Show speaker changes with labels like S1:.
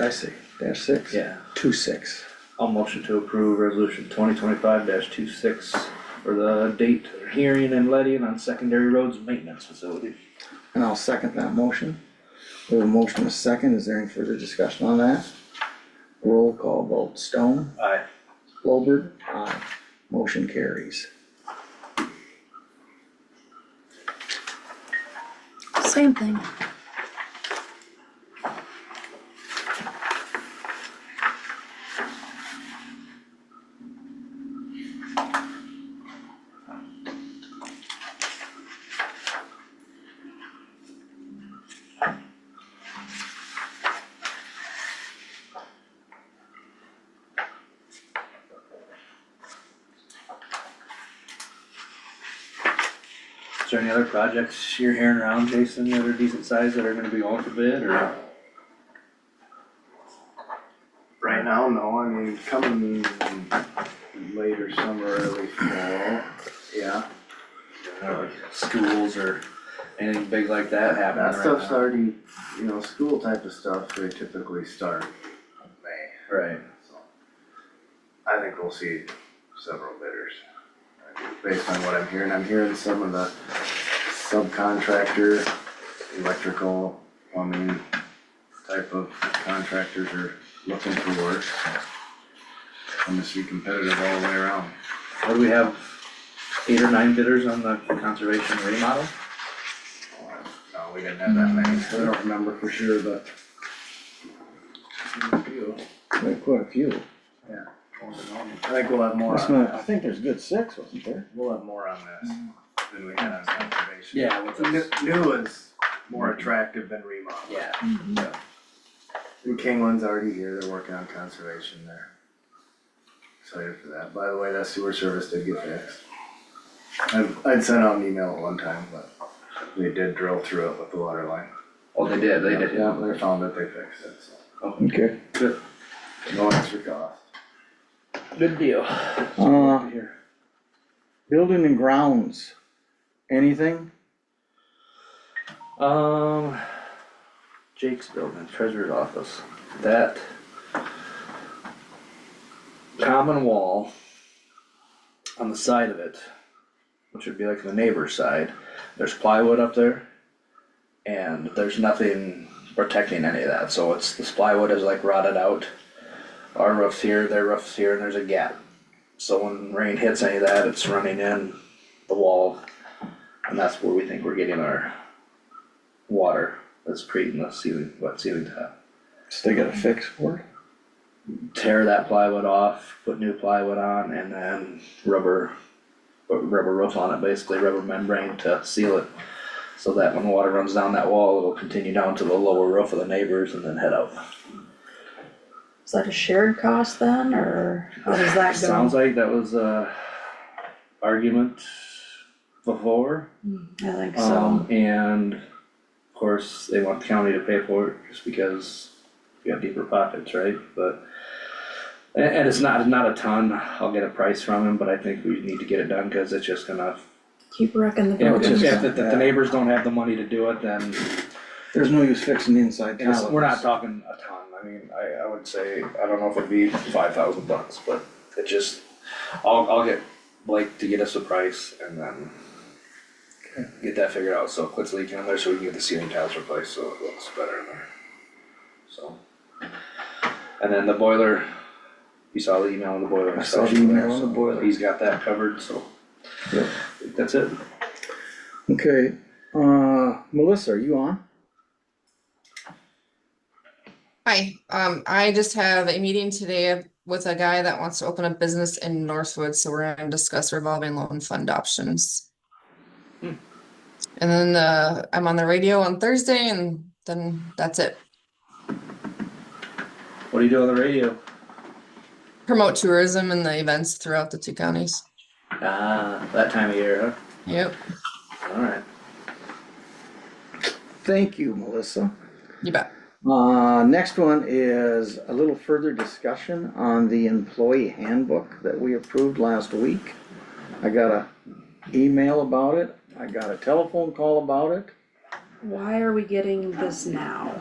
S1: I see, dash six?
S2: Yeah,
S1: Two six.
S2: I'll motion to approve resolution twenty twenty-five 26 for the date of hearing and letting on secondary roads maintenance facility.
S1: And I'll second that motion. We have a motion and a second, is there any further discussion on that? Roll call vote, Stone,
S2: Aye.
S1: Lowberg, aye, motion carries.
S3: Same thing.
S2: Is there any other projects you're hearing around, Jason, that are decent size that are gonna be going for bid or?
S4: Right now, no, I mean, coming later summer, early fall,
S2: Yeah. Or Schools or anything big like that happening
S4: that
S2: right
S4: stuff's
S2: now?
S4: already, you know, school type of stuff, they typically start in May,
S2: Right,
S4: so. I think we'll see several bidders, based on what I'm hearing, I'm hearing some of the subcontractor, electrical, plumbing type of contractors are looking for work, so. I'm gonna be competitive all the way around.
S2: what do we have, eight or nine bidders on the conservation remodel?
S4: No, Oh, we didn't have that many,
S2: Mm-hmm.
S4: I don't remember for sure, but.
S1: We have quite a few.
S4: I think we'll have more
S1: Must
S4: on
S1: not- I
S4: that,
S1: think there's a good six, wasn't there?
S4: we'll have more on this than we had on conservation.
S2: Yeah, with
S4: New,
S2: those-
S4: new is more attractive than remodel.
S2: Yeah.
S4: And Kingland's already here, they're working on conservation there. Excited for that, by the way, that sewer service did get fixed. I've, I'd sent out an email at one time, but they did drill through it with the water line.
S2: Oh, they did, they did,
S4: Yeah, they found that they fixed it, so,
S1: Okay.
S4: no extra cost.
S2: Good deal.
S1: Uh,
S2: Here.
S1: building and grounds, anything?
S2: Um, Jake's building, treasurer's office, that common wall on the side of it, which would be like the neighbor's side, there's plywood up there. And there's nothing protecting any of that, so it's, this plywood is like rotted out. Our roof's here, their roof's here, and there's a gap. So when rain hits any of that, it's running in the wall. And that's where we think we're getting our water that's creating the ceiling, wet ceiling tile.
S1: So they got a fix for it?
S2: Tear that plywood off, put new plywood on, and then rubber, put rubber roof on it, basically rubber membrane to seal it. So that when water runs down that wall, it'll continue down to the lower roof of the neighbors and then head out.
S3: Is that a shared cost then, or how does that
S2: Sounds
S3: go?
S2: like that was a argument before.
S3: I think so.
S2: Um, and of course, they want the county to pay for it just because you have deeper pockets, right? But, and, and it's not, not a ton, I'll get a price from him, but I think we need to get it done, cause it's just gonna.
S3: Keep wrecking the
S2: If,
S1: it's
S3: boat.
S1: just-
S2: if, if the neighbors don't have the money to do it, then
S1: There's no use fixing the inside
S2: it's-
S1: tile.
S2: we're not talking a ton, I mean, I, I would say, I don't know if it'd be five thousand bucks, but it just, I'll, I'll get Blake to get us a price and then get that figured out, so it quits leaking in there, so we can get the ceiling tiles replaced, so it looks better in there, so. And then the boiler, you saw the email on the boiler.
S1: I saw the
S2: inspection there,
S1: email on the
S2: so
S1: boiler.
S2: He's got that covered, so.
S1: Yep.
S2: That's it.
S1: Okay, uh, Melissa, are you on?
S5: Hi, um, I just have a meeting today with a guy that wants to open a business in Northwood, so we're gonna discuss revolving loan fund options. And then, uh, I'm on the radio on Thursday and then that's it.
S2: What do you do on the radio?
S5: Promote tourism and the events throughout the two counties.
S2: Ah, that time of year,
S5: Yep,
S2: huh? Alright.
S1: Thank you, Melissa.
S5: you bet.
S1: Uh, next one is a little further discussion on the employee handbook that we approved last week. I got a email about it, I got a telephone call about it.
S3: Why are we getting this now?